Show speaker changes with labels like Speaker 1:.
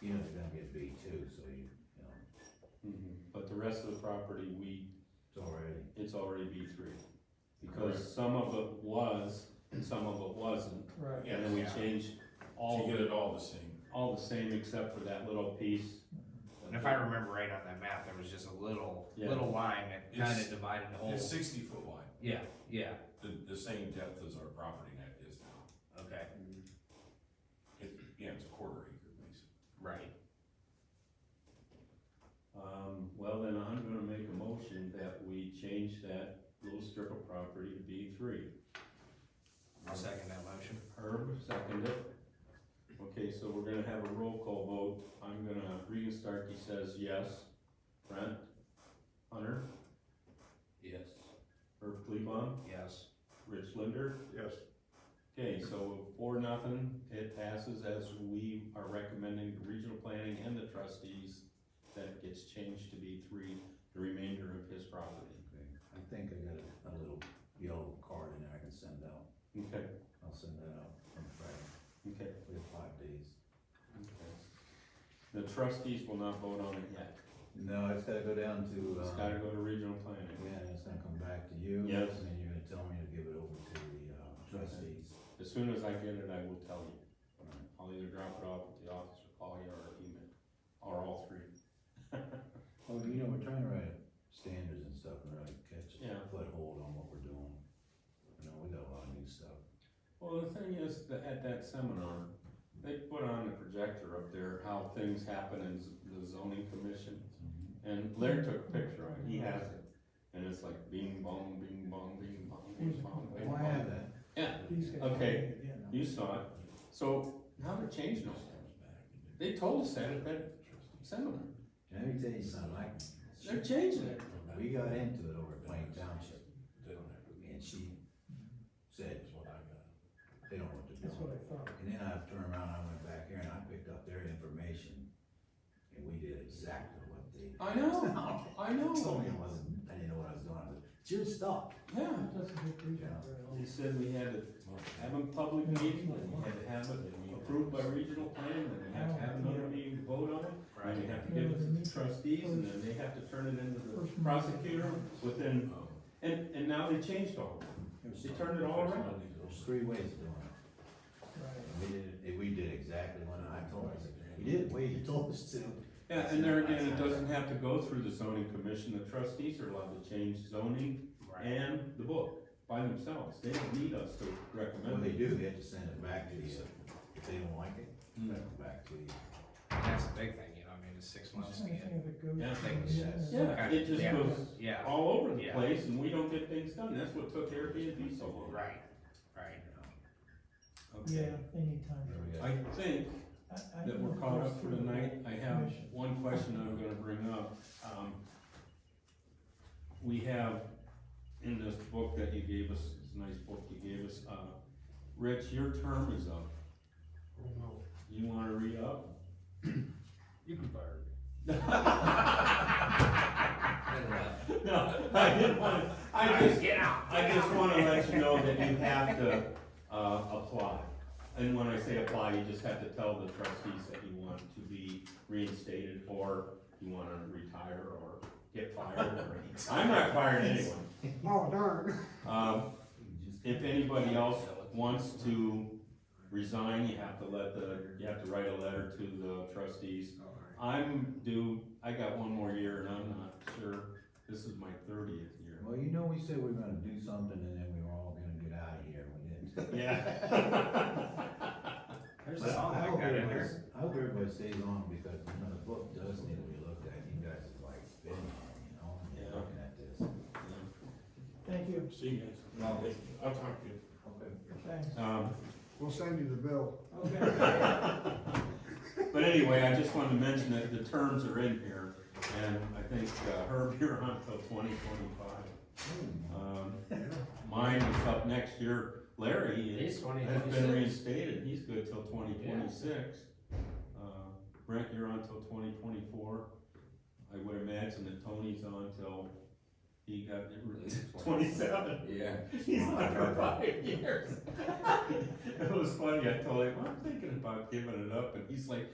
Speaker 1: you know, it's gonna get B two, so you, you know,
Speaker 2: Mm-hmm.
Speaker 3: But the rest of the property, we,
Speaker 1: it's already,
Speaker 3: it's already B three. Because some of it was, and some of it wasn't,
Speaker 4: Right.
Speaker 3: and then we
Speaker 2: Yeah.
Speaker 3: changed all,
Speaker 5: To
Speaker 3: of
Speaker 5: get
Speaker 3: it-
Speaker 5: it all the same.
Speaker 3: all the same except for that little piece.
Speaker 2: And if I remember right on that map, there was just a little,
Speaker 3: Yeah.
Speaker 2: little line that kind
Speaker 5: It's-
Speaker 2: of divided the whole.
Speaker 5: It's sixty foot wide,
Speaker 2: Yeah, yeah,
Speaker 5: the, the same depth as our property net is now.
Speaker 2: okay,
Speaker 5: It, yeah, it's a quarter acre basically.
Speaker 2: right.
Speaker 3: Um, well, then I'm gonna make a motion that we change that little strip of property to B three.
Speaker 2: I'll second that motion.
Speaker 3: Herb seconded. Okay, so we're gonna have a roll call vote. I'm gonna, Regan Starkey says yes. Brent? Hunter?
Speaker 1: yes,
Speaker 3: Herb Clebon?
Speaker 2: Yes.
Speaker 3: Rich Linder?
Speaker 6: Yes.
Speaker 3: Okay, so four, nothing. It passes as we are recommending to regional planning and the trustees that it gets changed to be three, the remainder of his property.
Speaker 1: okay. I think I got a, a little yellow card in there I can send out,
Speaker 3: Okay,
Speaker 1: I'll send that out on Friday,
Speaker 3: okay,
Speaker 1: we have five days.
Speaker 3: okay. The trustees will not vote on it yet.
Speaker 1: No, it's gotta go down to,
Speaker 3: It's
Speaker 1: uh,
Speaker 3: gotta go to regional planning.
Speaker 1: yeah, and it's gonna come back to you.
Speaker 3: Yes.
Speaker 1: And then you're gonna tell me to give it over to the, uh, trustees.
Speaker 3: As soon as I get it, I will tell you. I'll either drop it off at the office or call you or email, or all three.
Speaker 1: Well, Oh, you know, we're trying to write standards and stuff and really catch,
Speaker 3: Yeah.
Speaker 1: foothold on what we're doing. You know, we got a lot of new stuff.
Speaker 3: Well, the thing is, that at that seminar, they put on a projector up there, how things happen in z- the zoning commission. And Larry took a picture of it, he has it, and it's like bing bong, bing bong, bing bong, bing bong, bing
Speaker 1: Well, I
Speaker 3: bong.
Speaker 1: have that.
Speaker 3: Yeah.
Speaker 4: He's got-
Speaker 3: Okay.
Speaker 4: Yeah, no.
Speaker 3: You saw it, so now they're changing it. They told us that at that seminar,
Speaker 1: Let me tell you something, like,
Speaker 3: they're changing it.
Speaker 1: we got into it over at Plain Township
Speaker 5: They don't have, it.
Speaker 1: and she said,
Speaker 5: that's what I got.
Speaker 1: they don't want to do
Speaker 4: That's what
Speaker 1: it.
Speaker 4: I thought.
Speaker 1: And then I turned around, I went back here and I picked up their information and we did exactly what they.
Speaker 3: I know, I
Speaker 1: Told
Speaker 3: know,
Speaker 1: me I wasn't, I didn't know what I was doing, I was, it's your stuff.
Speaker 3: yeah.
Speaker 4: It doesn't get reached out very often.
Speaker 3: He said we had to have a public meeting, and we had to have it approved by regional planning, and we have to have another meeting to vote on it. And we have to give it to the trustees, and then they have to turn it into the prosecutor within,
Speaker 5: Um,
Speaker 3: and, and now they changed all of it. They turned it all around.
Speaker 1: There's three ways of doing it.
Speaker 4: Right.
Speaker 1: We did, it- we did exactly what I told us, we did what you told us to.
Speaker 3: Yeah, and there again, it doesn't have to go through the zoning commission, the trustees are allowed to change zoning
Speaker 2: Right.
Speaker 3: and the book by themselves, they don't need us to
Speaker 1: What
Speaker 3: recommend
Speaker 1: they
Speaker 3: it.
Speaker 1: do, they have to send it back to you, if they don't like it,
Speaker 3: Hmm.
Speaker 1: send it back to you.
Speaker 2: And that's a big thing, you know, I mean, it's six months to get.
Speaker 4: Anything that goes.
Speaker 3: Yeah, I
Speaker 2: think
Speaker 4: to-
Speaker 1: it's-
Speaker 4: Yeah.
Speaker 3: Yeah, it just goes
Speaker 2: Yeah,
Speaker 3: all over the
Speaker 2: Yeah.
Speaker 3: place, and we don't get things done, that's what took Airbnb so long.
Speaker 2: right, right.
Speaker 4: Yeah, they need time.
Speaker 1: There we go.
Speaker 3: I think
Speaker 4: I- I
Speaker 3: that we're
Speaker 4: don't
Speaker 3: caught
Speaker 4: know
Speaker 3: up for
Speaker 4: if
Speaker 3: tonight, I have
Speaker 4: Commission.
Speaker 3: one question I'm gonna bring up, um. We have in this book that you gave us, this nice book you gave us, uh, Rich, your term is up. You wanna re-up?
Speaker 2: You can fire me.
Speaker 3: No, I didn't wanna, I just,
Speaker 2: Get out.
Speaker 3: I just wanna let you know that you have to, uh, apply. And when I say apply, you just have to tell the trustees that you want to be reinstated, or you wanna retire, or get fired, or, I'm not firing anyone.
Speaker 7: Oh, darn.
Speaker 3: Um, if anybody else wants to resign, you have to let the, you have to write a letter to the trustees. I'm due, I got one more year and I'm not sure, this is my thirtieth year.
Speaker 1: Well, you know, we said we were gonna do something and then we were all gonna get out of here, we didn't.
Speaker 3: Yeah.
Speaker 2: There's a
Speaker 1: But
Speaker 2: song
Speaker 1: I
Speaker 2: I
Speaker 1: hope
Speaker 2: got in
Speaker 1: everybody,
Speaker 2: there.
Speaker 1: I hope everybody stays on because, you know, the book does need to be looked at, you guys have like been on, you know, and you're
Speaker 3: Yeah.
Speaker 1: looking at this.
Speaker 4: Thank you,
Speaker 5: See you guys. I'll talk to you.
Speaker 1: Okay.
Speaker 4: thanks.
Speaker 3: Um,
Speaker 7: We'll send you the bill.
Speaker 4: Okay.
Speaker 3: but anyway, I just wanted to mention that the terms are in here, and I think uh, Herb, you're on till twenty twenty-five. Um, mine is up next year, Larry is.
Speaker 2: He's twenty,
Speaker 3: Has
Speaker 2: he's-
Speaker 3: been reinstated, he's good till twenty twenty-six. Uh, Brent, you're on till twenty twenty-four. I would imagine that Tony's on till he got twenty-seven.
Speaker 1: Yeah.
Speaker 3: He's on for five years. It was funny, I told him, I'm thinking about giving it up, and he's like,